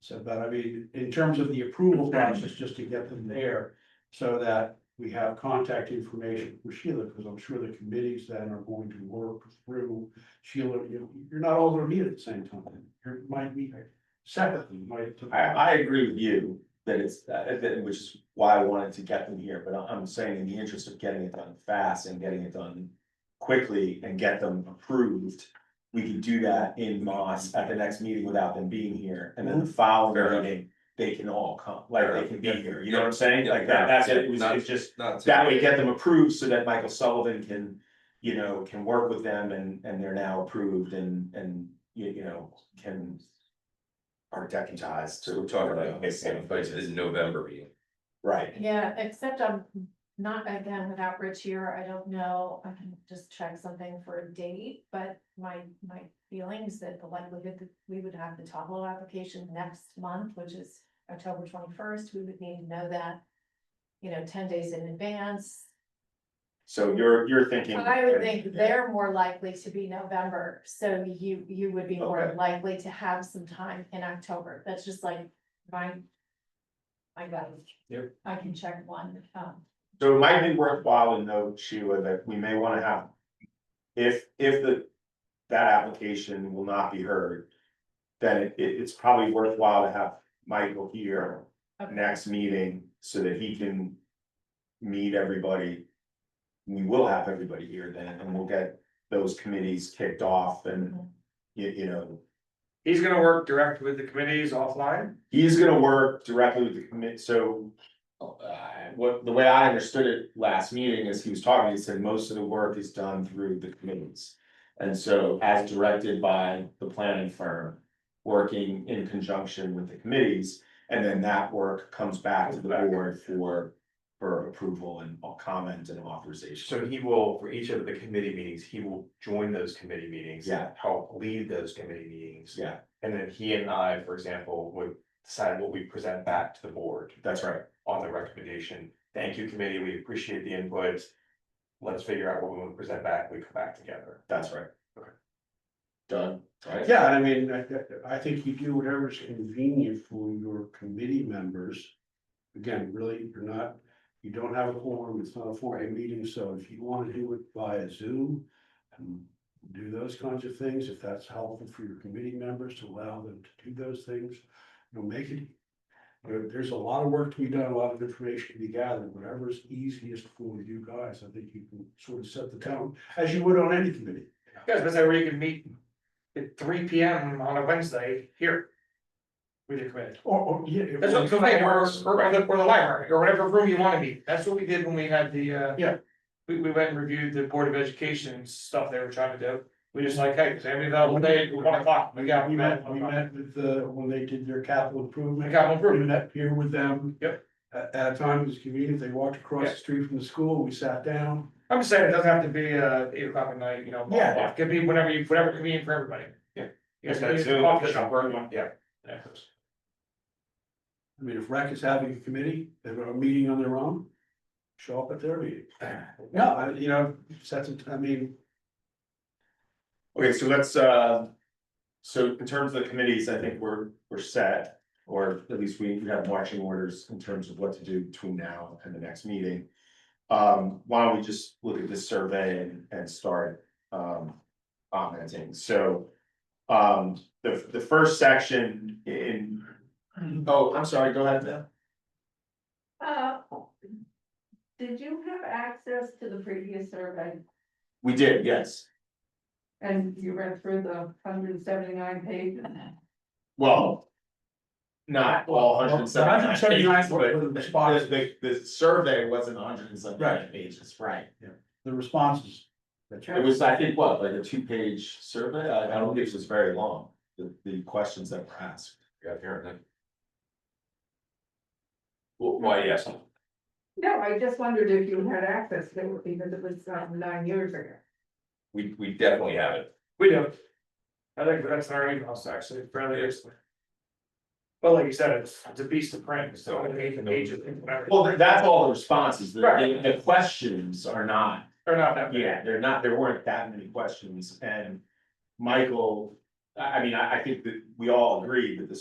So that, I mean, in terms of the approval process, just to get them there, so that we have contact information for Sheila, because I'm sure the committees then are going to work through Sheila, you, you're not all gonna meet at the same time, you might meet separately, might. I, I agree with you that it's, uh, that- which is why I wanted to get them here, but I- I'm saying in the interest of getting it done fast and getting it done quickly and get them approved, we could do that in Moss at the next meeting without them being here, and then the Mm-hmm. Fair following enough. meeting, they can all come, like, Fair they enough. can be here, you know what I'm saying? Yeah, Like, fair that, that's enough. it, it was, Not- it's just, Not to- that way get them approved so that Michael Sullivan can, you know, can work with them and, and they're now approved and, and, you, you know, can architectized to. So we're talking about this in the November meeting. Right, Yeah, except I'm not, again, without Rich here, I don't know, I can just check something for a date, but my, my feelings that the likelihood that we would have the Tableau application next month, which is October twenty-first, we would need to know that, you know, ten days in advance. so you're, you're thinking. I would think they're more likely to be November, so you, you would be more Okay. likely to have some time in October, that's just like my, my gut. Yep. I can check one, um, So it might be worthwhile to note, Sheila, that we may wanna have. If, if the, that application will not be heard. Then it, it- it's probably worthwhile to have Michael here Okay. next meeting so that he can. Meet everybody. We will have everybody here then, and we'll get those committees kicked off and, Mhm. you, you know. He's gonna work direct with the committees offline. He's gonna work directly with the commit, so. uh, What, the way I understood it last meeting is he was talking, he said most of the work is done through the committees. And so as directed by the planning firm, working in conjunction with the committees. And then that work comes back to the board for, for approval and comment and authorization. So he will, for each of the committee meetings, he will join those committee meetings. Yeah. Help lead those committee meetings. Yeah. And then he and I, for example, would decide what we present back to the board That's right. on the recommendation. Thank you, committee, we appreciate the input. Let's figure out what we want to present back, we come back together. That's right. Okay. Done. Right? Yeah, and I mean, I, I think you do whatever's convenient for your committee members. Again, really, you're not, you don't have a forum, it's not a four-day meeting, so if you want to do it via Zoom. And do those kinds of things, if that's helpful for your committee members to allow them to do those things, you know, make it. There- there's a lot of work to be done, a lot of information to be gathered, whatever's easiest for you guys, I think you can sort of set the tone, as you would on any committee. Guys, but where you can meet at three P M on a Wednesday here. With your committee. Or, or, yeah. if- That's what I'm saying, or, or or the, or the library, or whatever room you wanna be. That's what we did when we had the, uh. Yeah. We, we went and reviewed the Board of Education stuff they were trying to do. We just like, hey, is anybody available today at one o'clock? We got, We met, we met with the, when they did their capital We improvement. got one We room. met here with them. Yep. At, at a time it was convenient, they walked across Yeah. the street from the school, we sat down. I'm just saying, it doesn't have to be, uh, eight o'clock at night, you know. Yeah. It could be whenever you, whenever convenient for everybody. Yeah. You That's guys can use the Zoom, coffee that's shop. Zoom, yeah. Yeah. I mean, if rec is having a committee, they're a meeting on their own, show up at their meeting. No, I, you know, sets, it- I mean, Okay, so let's, uh, so in terms of the committees, I think we're, we're set. Or at least we we have marching orders in terms of what to do between now and the next meeting. Um, why don't we just look at this survey and, and start, um, commenting, so. Um, the, the first section in, oh, I'm sorry, go ahead, Mel. Uh, Did you have access to the previous survey We did, yes. and you read through the hundred and seventy-nine pages? Well. Not all hundred and seventy. 179 were the responses. The, the survey wasn't hundred and seventy-nine pages, right? the responses. that you- It was, I think, what, like a two-page survey? I, I don't think it was very long, the, the questions that were asked. Yeah, apparently. Well, why, yes, No, I just wondered if you had access to it because it was um, nine years ago. we, we definitely have it. We do. I think that's in our emails actually, fairly recently. But like you said, it's, it's a beast of print, so I mean, the age of whatever. Well, tha- that's all the responses, the, Right. the the questions are not, Or not that. big. yeah, they're not, there weren't that many questions, and Michael, I, I mean, I, I think that we all agree that the